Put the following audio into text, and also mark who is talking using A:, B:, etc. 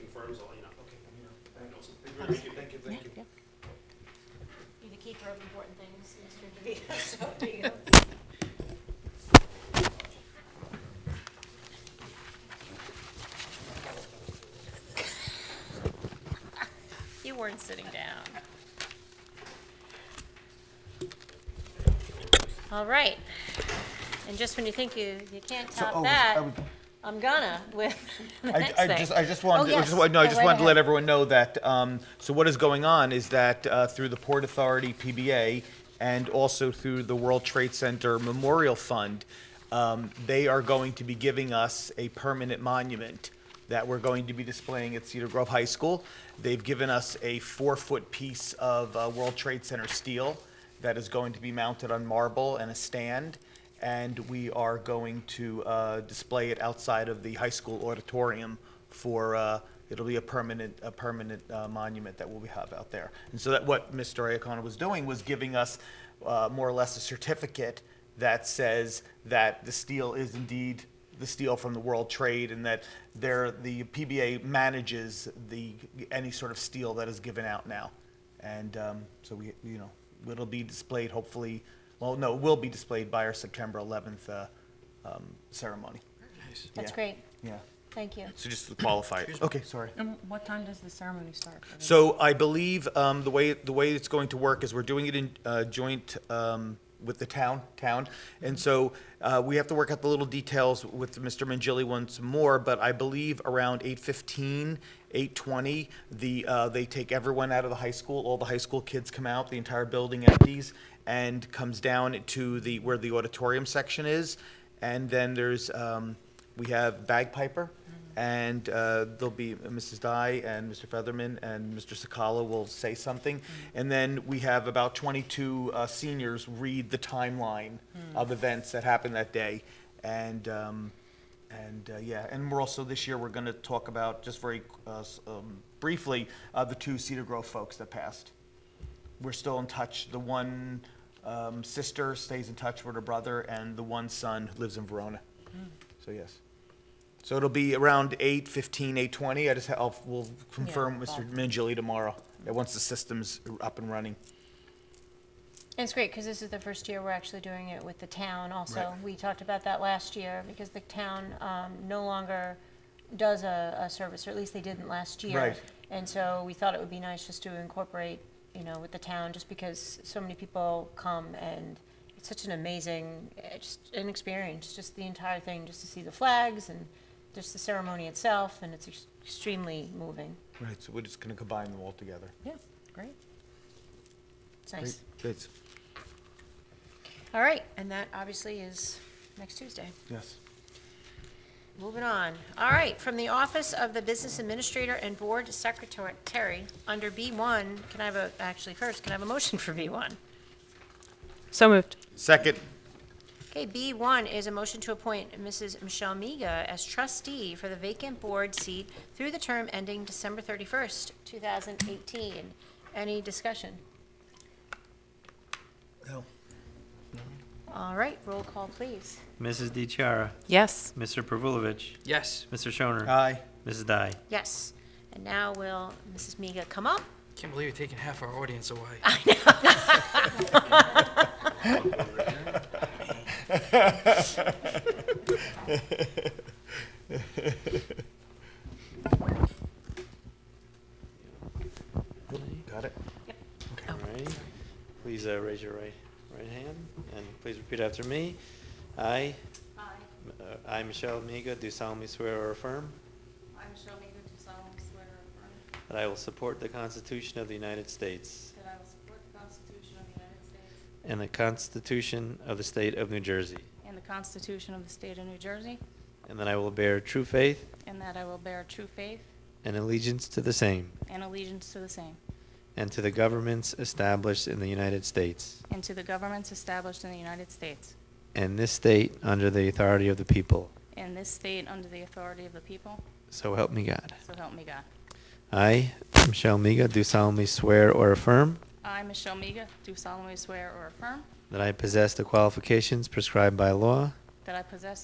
A: confirms all, you know,
B: Okay,
A: I know
B: thank
A: some
B: you.
A: things.
B: Thank you, thank you, thank you.
C: You're the keeper of important things, Mr. DeVito, so do you. You weren't sitting down. All right. And just when you think you, you can't
D: So,
C: top
D: oh, I
C: that,
D: was-
C: I'm gonna with the
D: I,
C: next
D: I
C: thing.
D: just, I just
C: Oh,
D: wanted, I
C: yes.
D: just, wa- no, I
C: Go
D: just
C: right
D: wanted to
C: ahead.
D: let everyone know that, um, so what is going on is that, uh, through the Port Authority PBA and also through the World Trade Center Memorial Fund, um, they are going to be giving us a permanent monument that we're going to be displaying at Cedar Grove High School. They've given us a four-foot piece of, uh, World Trade Center steel that is going to be mounted on marble and a stand and we are going to uh, display it outside of the high school auditorium for, uh, it'll be a permanent, a permanent uh, monument that we'll have out there. And so that, what Mr. Iacona was doing was giving us uh, more or less a certificate that says that the steel is indeed the steel from the World Trade and that there, the PBA manages the, any sort of steel that is given out now. And um, so we, you know, it'll be displayed hopefully, well, no, it will be displayed by our September 11th uh, um, ceremony.
C: That's
D: Yeah.
C: great.
D: Yeah.
C: Thank you.
D: So just to qualify it. Okay, sorry.
E: And what time does the ceremony start?
D: So I believe um, the way, the way it's going to work is we're doing it in uh, joint um, with the town, town. And so uh, we have to work out the little details with Mr. Mangili once more, but I believe around 8:15, 8:20, the, uh, they take everyone out of the high school, all the high school kids come out, the entire building empties, and comes down to the, where the auditorium section is. And then there's, um, we have bagpiper, and uh, there'll be Mrs. Dye and Mr. Featherman and Mr. Sakala will say something. And then we have about 22 uh, seniors read the timeline of events that happened that day. And, um, and uh, yeah, and we're also, this year, we're going to talk about, just very uh, s- um, briefly, uh, the two Cedar Grove folks that passed we're still in touch. The one um, sister stays in touch with her brother, and the one son lives in Verona. So yes. So it'll be around 8, 15, 8, 20. I just, ha- I'll, we'll confirm with Mr. Mangili tomorrow, uh, once the system's up and running.
C: And it's great because this is the first year we're actually doing it with the town also. We talked about that last year because the town um, no longer does a, a service, or at least they didn't last year.
D: Right.
C: And so we thought it would be nice just to incorporate, you know, with the town, just because so many people come and it's such an amazing, eh, just an experience, just the entire thing, just to see the flags and just the ceremony itself, and it's ex- extremely moving.
D: Right, so we're just gonna combine them all together.
E: Yeah, great.
C: It's nice.
D: Great,
C: All right, and that obviously is next Tuesday.
D: yes.
C: Moving on. All right, from the Office of the Business Administrator and Board Secretary, under B1, can I have a, actually first, can I have a motion for B1?
E: So moved.
D: Second,
C: Okay, B1 is a motion to appoint Mrs. Michelle Miga as trustee for the vacant board seat through the term ending December 31st, 2018. Any discussion?
D: No.
C: All right, roll call, please.
F: Mrs. DiChiara,
E: Yes.
F: Mr. Pervulovich,
B: Yes.
F: Mr. Shoner,
D: aye.
F: Mrs. Dye.
C: Yes. And now will Mrs. Miga come up?
B: Can't believe you're taking half our audience away.
D: Got it?
F: All right. Please uh, raise your right, right hand and please repeat after me. I, m-
G: I,
F: uh, I, Michelle Miga, do solemnly swear or affirm
G: I, Michelle Meager, do solemnly swear or affirm
F: that I will support the Constitution of the United States
G: that I will support the Constitution of the United States
F: and the Constitution of the State of New Jersey,
G: and the Constitution of the State of New Jersey,
F: and that I will bear true faith
G: and that I will bear true faith
F: and allegiance to the same
G: and allegiance to the same,
F: and to the governments established in the United States
G: and to the governments established in the United States,
F: and this state under the authority of the people.
G: and this state under the authority of the people,
F: So help me God.
G: so help me God.
F: I, Michelle Miga, do solemnly swear or affirm
G: I, Michelle Meager, do solemnly swear or affirm
F: that I possess the qualifications prescribed by law
G: that I possess